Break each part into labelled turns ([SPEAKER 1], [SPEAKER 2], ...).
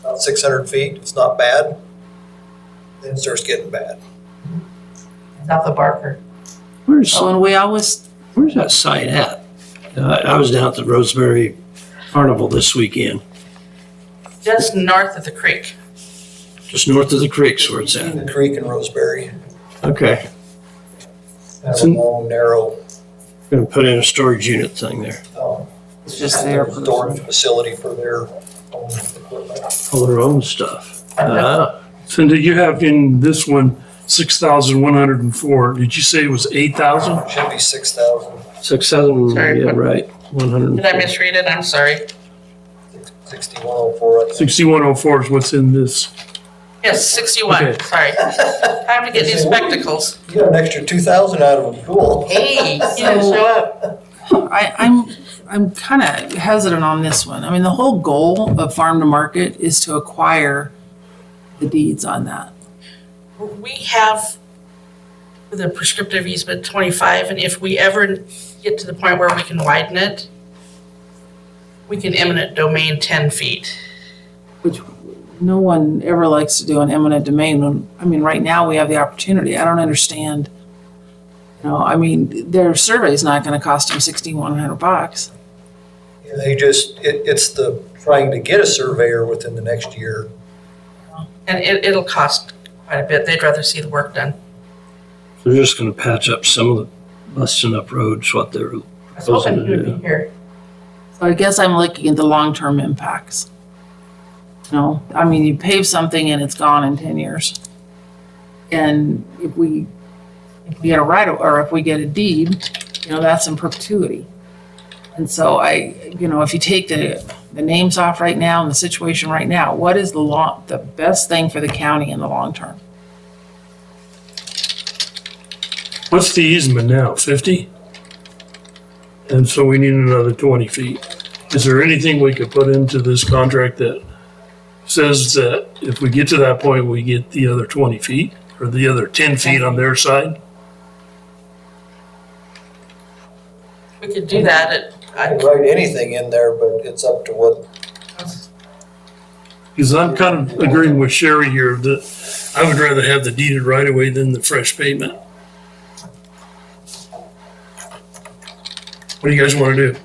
[SPEAKER 1] about six hundred feet, it's not bad. Then it starts getting bad.
[SPEAKER 2] South of Barker.
[SPEAKER 3] Where's,
[SPEAKER 2] Oh, and we always,
[SPEAKER 3] where's that site at? Uh, I was down at the Roseberry Carnival this weekend,
[SPEAKER 2] just north of the creek.
[SPEAKER 3] just north of the creeks where it's at.
[SPEAKER 1] Between the creek and Roseberry,
[SPEAKER 3] Okay,
[SPEAKER 1] that's a long, narrow,
[SPEAKER 3] gonna put in a storage unit thing there.
[SPEAKER 1] um,
[SPEAKER 4] It's just there for
[SPEAKER 1] storage
[SPEAKER 4] the,
[SPEAKER 1] facility for their own equipment.
[SPEAKER 3] All their own stuff. Ah,
[SPEAKER 5] Cindy, you have in this one, six thousand one hundred and four. Did you say it was eight thousand?
[SPEAKER 1] Should be six thousand,
[SPEAKER 3] six thousand,
[SPEAKER 2] Sorry,
[SPEAKER 3] yeah,
[SPEAKER 2] but-
[SPEAKER 3] right, one hundred.
[SPEAKER 2] Did I misread it? I'm sorry.
[SPEAKER 1] sixty-one oh four, I think.
[SPEAKER 5] Sixty-one oh four is what's in this.
[SPEAKER 2] Yes, sixty-one,
[SPEAKER 5] Okay.
[SPEAKER 2] sorry. Time to get new spectacles.
[SPEAKER 1] You got an extra two thousand out of them, cool.
[SPEAKER 2] Hey, you didn't
[SPEAKER 4] So-
[SPEAKER 2] show up.
[SPEAKER 4] I, I'm, I'm kind of hesitant on this one. I mean, the whole goal of farm to market is to acquire the deeds on that.
[SPEAKER 2] We have the prescriptive easement twenty-five, and if we ever get to the point where we can widen it, we can eminent domain ten feet.
[SPEAKER 4] No one ever likes to do an eminent domain. when- I mean, right now we have the opportunity. I don't understand. You know, I mean, their survey's not going to cost them sixty-one hundred bucks.
[SPEAKER 1] Yeah, They just, it, it's the, trying to get a surveyor within the next year.
[SPEAKER 2] And it, it'll cost quite a bit. They'd rather see the work done.
[SPEAKER 3] They're just gonna patch up some of the busting up roads, what they're,
[SPEAKER 2] I was hoping you would be here.
[SPEAKER 4] So I guess I'm looking at the long-term impacts. You know, I mean, you pave something and it's gone in ten years. And if we, if we get a right, of- or if we get a deed, you know, that's in perpetuity. And so I, you know, if you take the, the names off right now and the situation right now, what is the law, the best thing for the county in the long term?
[SPEAKER 5] What's the easement now? Fifty? And so we need another twenty feet. Is there anything we could put into this contract that says that if we get to that point, we get the other twenty feet or the other ten feet on their side?
[SPEAKER 2] We could do that at,
[SPEAKER 1] I
[SPEAKER 2] I
[SPEAKER 1] can write anything in there, but it's up to what
[SPEAKER 5] Because I'm kind of agreeing with Sherry here that I would rather have the deeded right away than the fresh pavement. What do you guys want to do?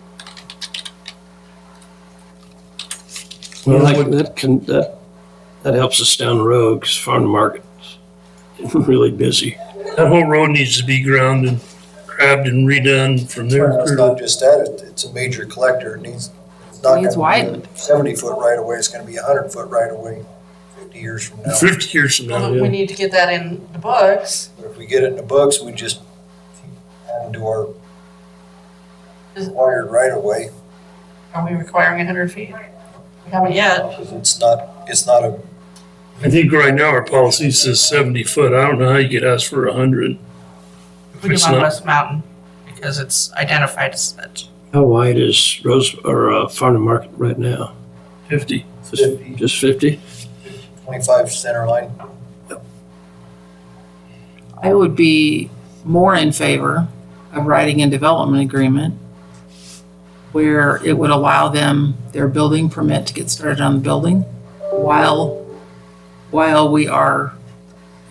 [SPEAKER 3] well, that, that can, that, that helps us down the road, cause farm to market's really busy.
[SPEAKER 5] That whole road needs to be ground and grabbed and redone from there.
[SPEAKER 1] It's not just that, it- it's a major collector, it needs. it's not
[SPEAKER 4] Needs
[SPEAKER 1] gonna be a
[SPEAKER 4] widened.
[SPEAKER 1] Seventy foot right away. it's gonna be a hundred foot right away. fifty years from now.
[SPEAKER 5] Fifty years from now,
[SPEAKER 2] we
[SPEAKER 5] yeah.
[SPEAKER 2] need to get that in the books.
[SPEAKER 1] But If we get it in the books, we just add into our wired right away.
[SPEAKER 2] Are we requiring hundred feet? We haven't yet.
[SPEAKER 1] because It's not, it's not a,
[SPEAKER 5] I think right now our policy says seventy foot. I don't know how you could ask for a hundred.
[SPEAKER 2] We do
[SPEAKER 5] It's
[SPEAKER 2] on
[SPEAKER 5] not-
[SPEAKER 2] West Mountain because it's identified as such.
[SPEAKER 3] How wide is Rose, or, uh, farm to market right now?
[SPEAKER 5] Fifty.
[SPEAKER 3] Just- Just fifty?
[SPEAKER 1] twenty-five center line.
[SPEAKER 4] I would be more in favor of writing a development agreement where it would allow them their building permit to get started on the building while, while we are,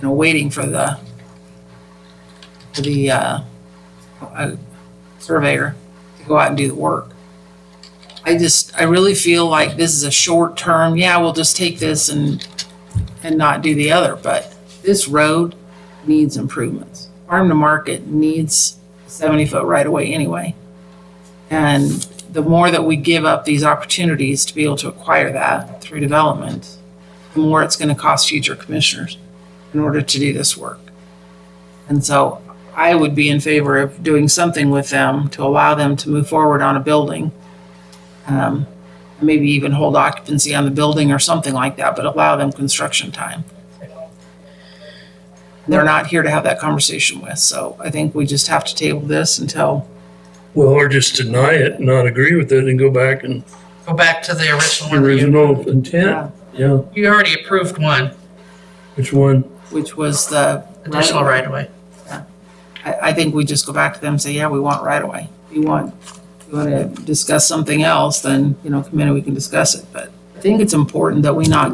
[SPEAKER 4] you know, waiting for the, for the, uh, uh, surveyor to go out and do the work. I just, I really feel like this is a short term, yeah, we'll just take this and, and not do the other, but this road needs improvements. Farm to market needs seventy foot right away anyway. And the more that we give up these opportunities to be able to acquire that through development, the more it's gonna cost future commissioners in order to do this work. And so I would be in favor of doing something with them to allow them to move forward on a building. Um, maybe even hold occupancy on the building or something like that, but allow them construction time they're not here to have that conversation with. So I think we just have to table this until,
[SPEAKER 5] Well, or just deny it, not agree with it and go back and
[SPEAKER 2] Go back to the original one. that you-
[SPEAKER 5] original intent. Yeah,
[SPEAKER 2] You already approved one
[SPEAKER 5] which one?
[SPEAKER 4] which was the.
[SPEAKER 2] additional right of way.
[SPEAKER 4] I, I think we just go back to them and say, yeah, we want right away. If you want, if you want to discuss something else, then, you know, come in and we can discuss it. But I think it's important that we not